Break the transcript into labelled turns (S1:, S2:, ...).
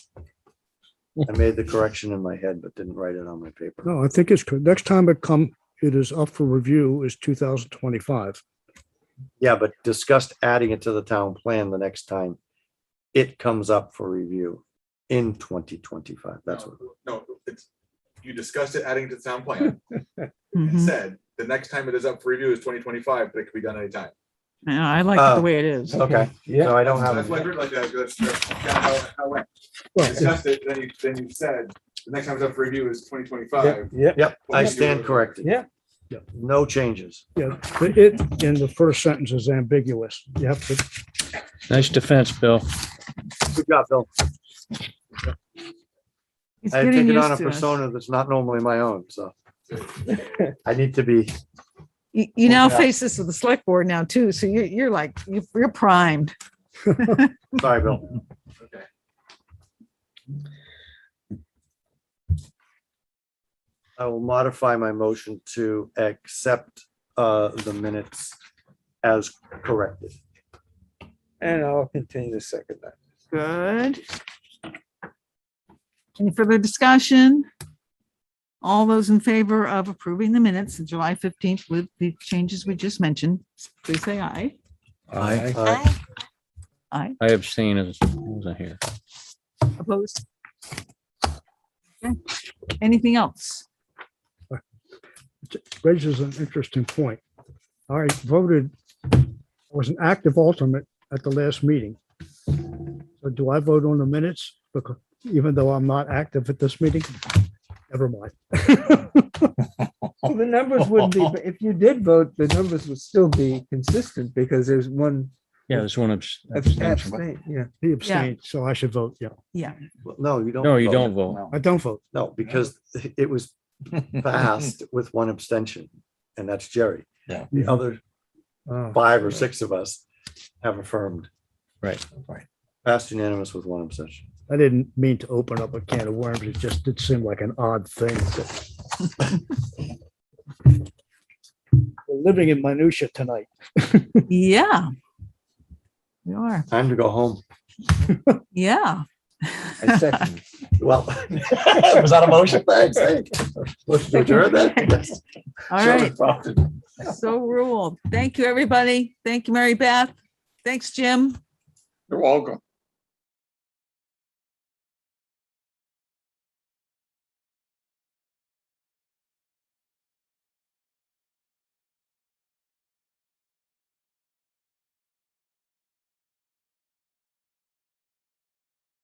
S1: I made the correction in my head, but didn't write it on my
S2: Oh.
S1: paper.
S3: No, I think it's, good. next time it come, it is up for review is two thousand twenty-five.
S1: Yeah, but discussed adding it to the town plan the next time it comes up for review in twenty twenty-five. That's what,
S4: No, it's, you discussed it adding to the town plan and
S2: Mhm.
S4: said, the next time it is up for review is twenty twenty-five, but it could be done anytime.
S2: Yeah, I like it
S1: Uh,
S2: the way it is.
S1: okay,
S5: Yeah,
S1: so I don't
S4: That's why I
S1: have,
S4: did it like that, because that's, that's kinda how, how it went. You
S3: Well,
S4: discussed it, then you, then you said, the next time it's up for review is twenty
S5: yeah,
S4: twenty-five.
S5: yeah,
S1: yep, I stand corrected.
S5: yeah.
S1: No changes.
S3: yeah, the it in the first sentence is ambiguous. You have to,
S6: Nice defense, Bill.
S1: Good job, Bill.
S2: He's
S1: I
S2: getting
S1: take it on a
S2: used to us.
S1: persona that's not normally my own, so. I need to be,
S2: You you now
S1: Yeah.
S2: face this with the select board now too, so you, you're like, you- you're primed.
S1: sorry, Bill. I will modify my motion to accept uh, the minutes as corrected.
S5: And I'll continue to second that.
S2: Good. Any further discussion? All those in favor of approving the minutes of July fifteenth with the changes we just mentioned, please say aye.
S6: I
S1: Uh,
S2: Aye.
S6: I abstain as, as I hear.
S2: Opposed? Okay. Anything else?
S3: raises an interesting point. I voted, I was an active alternate at the last meeting. So do I vote on the minutes? Because even though I'm not active at this meeting? Never mind.
S5: Well, the numbers would be, if you did vote, the numbers would still be consistent because there's one
S6: Yeah, there's one abs- abstention.
S5: abstain, yeah.
S3: He abstained, so I should vote, yeah.
S2: Yeah.
S1: No, you don't.
S6: No, you
S1: vote.
S6: don't vote.
S3: I don't vote.
S1: No, because it was passed with one abstention, and that's Jerry.
S7: Yeah.
S1: The other
S3: Uh,
S5: Oh.
S1: five or six of us have affirmed.
S6: Right.
S7: Right.
S1: Passed unanimous with one abstention.
S3: I didn't mean to open up a can of worms. It just did seem like an odd thing. We're Living in minutia tonight.
S2: Yeah. We are.
S1: Time to go home.
S2: Yeah.
S7: I second.
S1: Well, was that a motion? Thanks. hey. Motion to adjourn then?
S2: All
S7: Sure,
S2: right.
S7: prompted.
S2: So ruled. Thank you, everybody. Thank you, Mary Beth. Thanks, Jim.
S7: You're welcome.